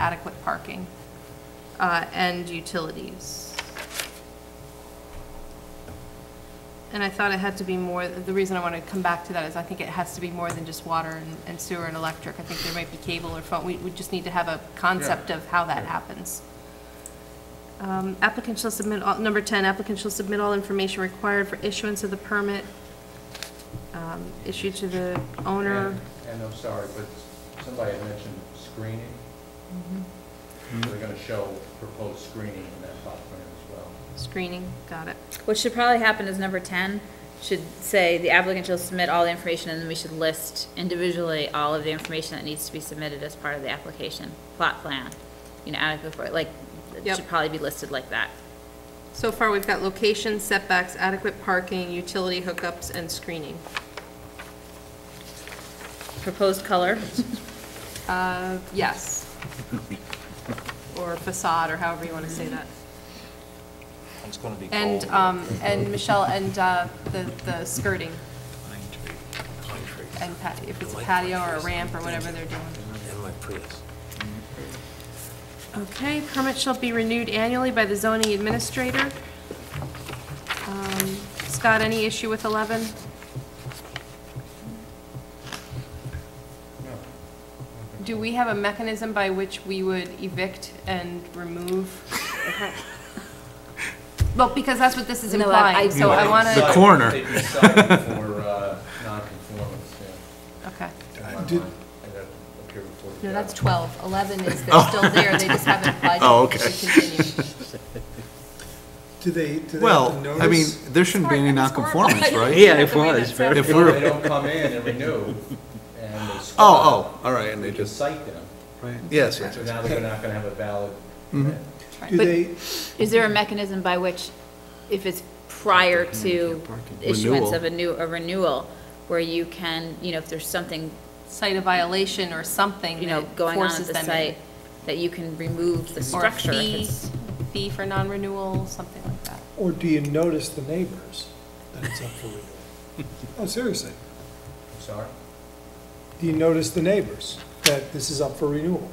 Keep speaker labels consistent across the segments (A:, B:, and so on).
A: adequate parking uh, and utilities. And I thought it had to be more, the reason I want to come back to that is I think it has to be more than just water and- and sewer and electric. I think there might be cable or phone, we, we just need to have a concept of how that happens. Um, Applicant shall submit, all- number 10, applicant shall submit all information required for issuance of the permit um, issued to the owner.
B: And- And I'm sorry, but somebody had mentioned screening.
A: Mm-hmm.
B: They're gonna show proposed screening in that plot plan as well.
A: Screening, got it.
C: What should probably happen is number ten should say the applicant shall submit all the information and then we should list individually all of the information that needs to be submitted as part of the application, plot plan. You know, adequate for, like, it
A: Yep.
C: should probably be listed like that.
A: So far, we've got location, setbacks, adequate parking, utility hookups, and screening.
C: Proposed color,
A: Uh, yes. Or facade, or however you want to say that.
D: It's gonna be cold.
A: And, um, and Michelle, and, uh, the, the skirting,
D: Pine tree, pine trees.
A: and pat, if it's a patio or a ramp or whatever they're doing.
D: And my Prius.
A: Okay, permit shall be renewed annually by the zoning administrator. Um, Scott, any issue with eleven?
B: No.
A: Do we have a mechanism by which we would evict and remove? Well, because that's what this is
C: No, I- I-
A: implying, so I want
B: Cited-
A: to,
E: The corner.
B: They'd be cited for, uh, non-conformance, yeah.
A: okay.
B: in my mind. And that appeared before the
A: No, that's
B: judge.
A: 12. 11 is, they're still there, they just haven't applied.
E: Oh,
A: to
E: okay.
A: continue.
F: Do they, do they
E: Well,
F: have to
E: I mean,
F: notice?
E: there shouldn't be any
A: It's horrible.
E: nonconformance, right?
G: Yeah, it was, very
E: If
B: No, They
E: we're,
B: don't come in and renew, and they squat.
E: oh, oh, all right, and they
B: They just
E: just,
B: cite them,
E: yes, yes,
B: so
E: yes.
B: now they're not gonna have a valid.
E: Mm-hmm.
F: Do
C: But-
F: they,
C: is there a mechanism by which, if it's prior to issuance of a new, a renewal, where you can, you know, if there's something
A: Cite a violation or something
C: you know,
A: that
C: going on at
A: forces
C: the
A: them in.
C: site, that you can remove the
A: Or a
C: structure. if
A: fee,
C: it's-
A: fee for non-renewal, something like that.
F: or do you notice the neighbors that it's up for renewal? Oh, seriously,
B: I'm sorry?
F: do you notice the neighbors that this is up for renewal?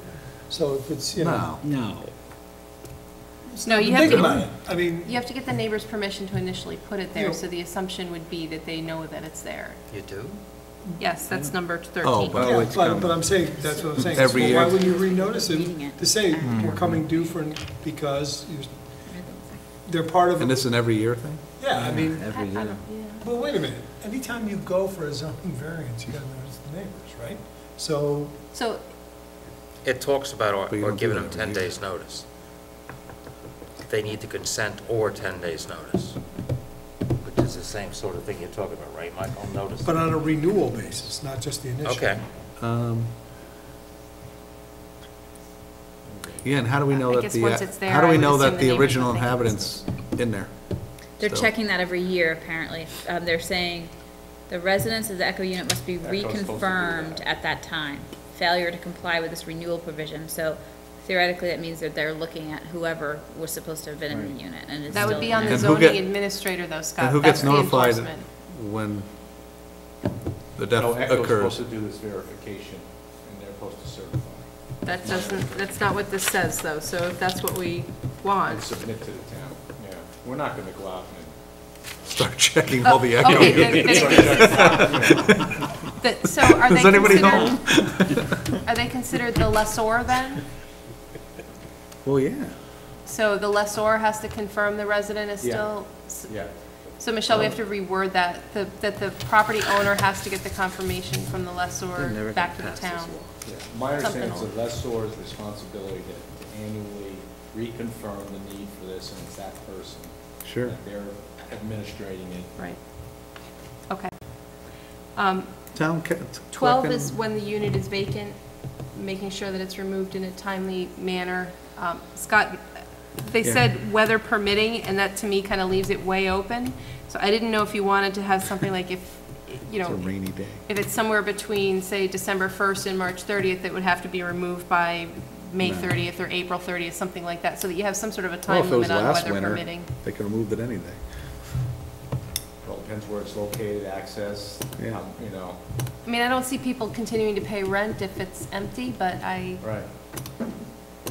F: So if it's, you know.
E: No,
G: no.
A: No, you have
F: Think about
A: to,
F: it, I mean,
A: you have to get the neighbor's permission to initially put it there,
F: Yeah.
A: so the assumption would be that they know that it's there.
H: Mm.
D: You do?
A: Yes, that's number 13.
E: Oh, but-
F: yeah,
E: it's
F: but,
E: coming.
F: but I'm saying, that's what I'm saying. Well,
E: Every
F: Why
E: year. Mm.
F: would you renotice
C: Reading it.
F: it, to say, we're coming due for, because you- they're part of,
E: and this is an every year thing?
F: yeah, I mean,
A: I- I don't- yeah.
F: Well, wait a minute, anytime you go for a zoning variance, you gotta notice the neighbors, right? So,
A: So,
H: It talks about, uh,
E: But you
H: or- or
E: don't do
H: giving
E: that
H: them
E: every
H: 10
E: year.
H: days' notice. They need to consent or 10 days' notice, which is the same sort of thing you're talking about, right, Michael? Notice.
F: but on a renewal basis, not just the initial.
H: Okay.
E: Um, Yeah, and how do we know
A: I
E: that
A: guess
E: the,
A: once it's
E: uh,
A: there,
E: how do
A: I
E: we
A: would
E: know
A: assume
E: that
A: the
E: the
A: neighbors
E: original
A: would think
E: inhabitants in there?
C: They're
E: So-
C: checking that every year, apparently. Um, they're saying the residents of the Echo unit must be
B: Echo's supposed to do
C: reconfirmed
B: that.
C: at that time. Failure to comply with this renewal provision, so theoretically, that means that they're looking at whoever was supposed to have been in the unit and is
A: that
C: still
A: would be
C: in
A: on the
C: it.
E: And who get-
A: zoning administrator though, Scott.
E: And who gets
A: That's the
E: notified
A: enforcement.
E: when
B: No,
E: the death
B: ECHO's supposed
E: occurs?
B: to do this verification, and they're supposed to certify
A: That doesn't, that's not what this says though, so if that's what we want.
B: and submit to the town. Yeah, we're not gonna go out and,
E: Start checking all the echo.
A: Oh, Okay, then- then That- So are they
E: Is anybody
A: considered, are they considered the lessor then?
E: Well, yeah.
A: So the lessor has to confirm the resident is
B: Yeah.
A: still, s-
B: yeah.
A: so Michelle, we have to reword that, the- that the property owner has to get the confirmation from the lessor back to the town.
B: Yeah, My understanding is
A: Something.
B: the lessor's responsibility to to annually reconfirm the need for this, and it's that person.
E: Sure.
B: And They're administrating it.
A: Right. Okay. Um,
E: Town. ca-
A: 12
E: collecting-
A: is when the unit is vacant, making sure that it's removed in a timely manner. Um, Scott, they
E: Yeah.
A: said weather permitting, and that to me kind of leaves it way open. So I didn't know if you wanted to have something like if, you
E: It's a
A: know,
E: rainy day.
A: if it's somewhere between, say, December 1st and March 30th, it would have to be removed by May
E: No.
A: 30th or April 30th, something like that, so that you have some sort of a
E: Well,
A: time
E: if it was
A: limit on
E: last
A: weather
E: winter,
A: permitting.
E: They could have moved it any day.
B: Well, depends where it's located, access,
E: Yeah.
B: um, you know,
A: I mean, I don't see people continuing to pay rent if it's empty, but I,
B: right.